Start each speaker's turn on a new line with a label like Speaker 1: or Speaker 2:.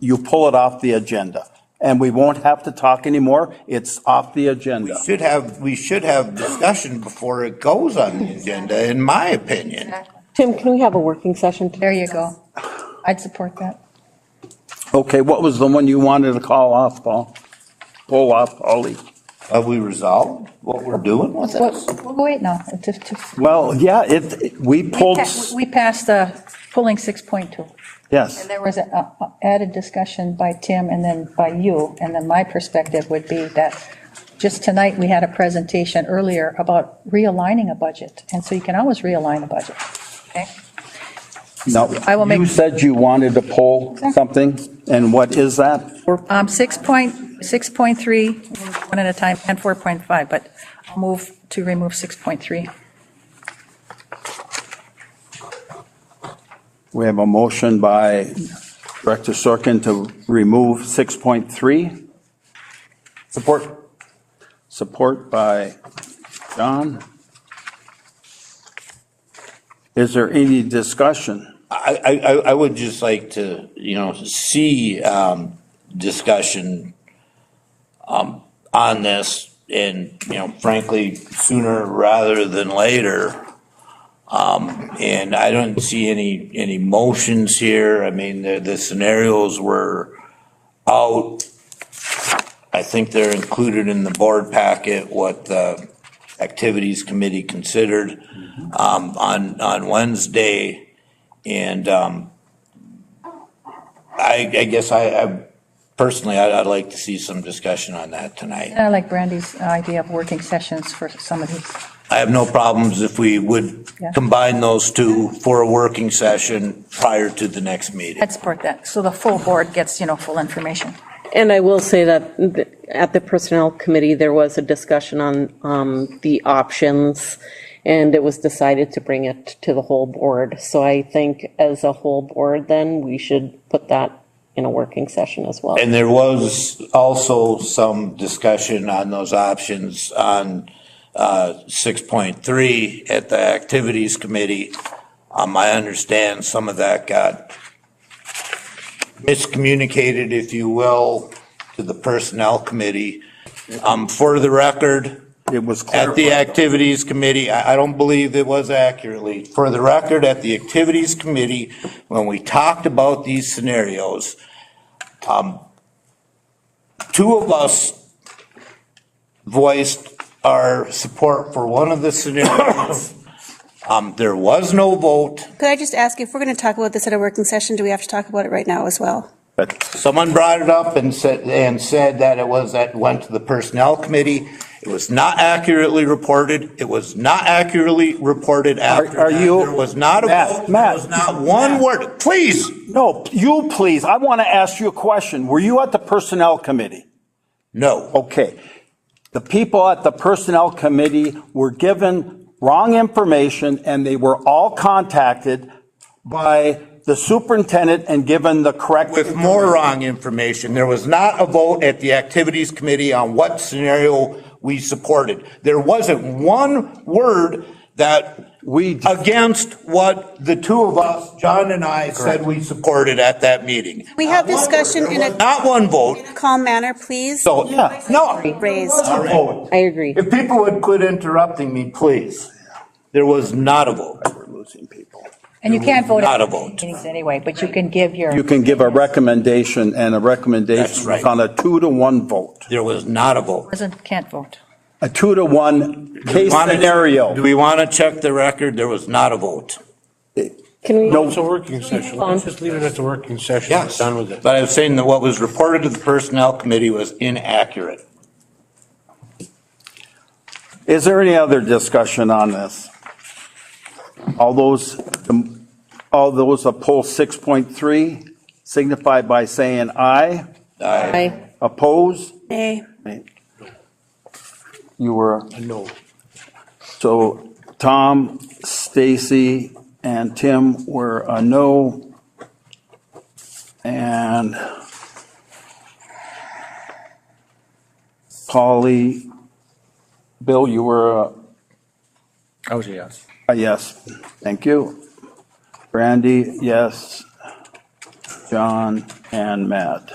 Speaker 1: you pull it off the agenda. And we won't have to talk anymore. It's off the agenda.
Speaker 2: Should have, we should have discussion before it goes on the agenda, in my opinion.
Speaker 3: Tim, can we have a working session? today?
Speaker 4: There you go. I'd support that.
Speaker 1: Okay, what was the one you wanted to call off, Paul? Pull off, Ollie.
Speaker 2: Have we resolved what we're doing with this?
Speaker 4: What- well, Wait, no, it's just- just-
Speaker 1: Well, yeah, it, we
Speaker 4: we
Speaker 1: pulled,
Speaker 4: pa- we passed uh, pulling 6.2.
Speaker 1: yes.
Speaker 4: And there was an added discussion by Tim and then by you, and then my perspective would be that just tonight, we had a presentation earlier about realigning a budget, and so you can always realign a budget.
Speaker 1: No,
Speaker 4: I will make-
Speaker 1: you said you wanted to pull something, and what is that?
Speaker 4: Um, 6.6.3, one at a time, and 4.5, but I'll move to remove 6.3.
Speaker 1: We have a motion by Director Sorkin to remove 6.3. Support. Support by John. Is there any discussion?
Speaker 2: I, I, I- I would just like to, you know, see, um, discussion, um, on this and, you know, frankly, sooner rather than later. Um, and I don't see any, any motions here. I mean, the, the scenarios were out. I think they're included in the board packet, what the activities committee considered, um, on, on Wednesday. And um, I, I guess I, I personally, I'd, I'd like to see some discussion on that tonight.
Speaker 4: I like Brandy's idea of working sessions for some of these.
Speaker 2: I have no problems if we would
Speaker 4: Yeah.
Speaker 2: combine those two for a working session prior to the next meeting.
Speaker 4: I'd support that, so the full board gets, you know, full information.
Speaker 3: And I will say that th- at the Personnel Committee, there was a discussion on um, the options, and it was decided to bring it to the whole board. So I think as a whole board, then, we should put that in a working session as well.
Speaker 2: And there was also some discussion on those options on uh, 6.3 at the Activities Committee. Um, I understand some of that got miscommunicated, if you will, to the Personnel Committee. Um, For the record,
Speaker 1: It was
Speaker 2: at the
Speaker 1: clarified.
Speaker 2: Activities Committee, I, I don't believe it was accurately. For the record, at the Activities Committee, when we talked about these scenarios, um, two of us voiced our support for one of the scenarios. Um, there was no vote.
Speaker 5: Could I just ask, if we're going to talk about this at a working session, do we have to talk about it right now as well?
Speaker 2: Someone brought it up and said, and said that it was, that went to the Personnel Committee. It was not accurately reported. It was not accurately reported after
Speaker 1: are
Speaker 2: that.
Speaker 1: you-
Speaker 2: There was not a
Speaker 1: Matt,
Speaker 2: vote.
Speaker 1: Matt.
Speaker 2: There was not one word. Please,
Speaker 1: No, you please, I want to ask you a question. Were you at the Personnel Committee?
Speaker 2: no.
Speaker 1: Okay. The people at the Personnel Committee were given wrong information, and they were all contacted by the superintendent and given the correct.
Speaker 2: With more wrong information. There was not a vote at the Activities Committee on what scenario we supported. There wasn't one word that
Speaker 1: We,
Speaker 2: against what the two of us, John and I, said we supported at that meeting.
Speaker 5: We have
Speaker 2: Not one
Speaker 5: discussion
Speaker 2: vote.
Speaker 5: in a-
Speaker 2: Not one vote,
Speaker 5: Calm manner, please.
Speaker 2: so,
Speaker 1: Yeah.
Speaker 2: no.
Speaker 5: Raised.
Speaker 2: All right.
Speaker 3: I agree.
Speaker 2: If people would quit interrupting me, please. There was not a vote. We're losing people.
Speaker 4: And you can't vote.
Speaker 2: Not
Speaker 4: at
Speaker 2: a vote.
Speaker 4: Meetings anyway, but you can give your.
Speaker 1: you can give a recommendation, and a
Speaker 2: That's
Speaker 1: recommendation
Speaker 2: right.
Speaker 1: is on a two-to-one vote.
Speaker 2: There was not a vote.
Speaker 4: Doesn't, can't vote.
Speaker 1: A two-to-one case
Speaker 2: Wanna-
Speaker 1: scenario.
Speaker 2: Do we want to check the record? There was not a vote.
Speaker 3: Can we?
Speaker 6: It's a working session. Let's just leave it at the working session. Done with it.
Speaker 2: But I was saying that what was reported to the Personnel Committee was inaccurate.
Speaker 1: Is there any other discussion on this? All those, all those opposed 6.3 signify by saying aye.
Speaker 3: Aye.
Speaker 1: Opposed?
Speaker 5: Nay.
Speaker 1: You were,
Speaker 6: No.
Speaker 1: so Tom, Stacy, and Tim were a no. And Polly, Bill, you were a
Speaker 7: I was a yes.
Speaker 1: a yes. Thank you. Brandy, yes. John and Matt.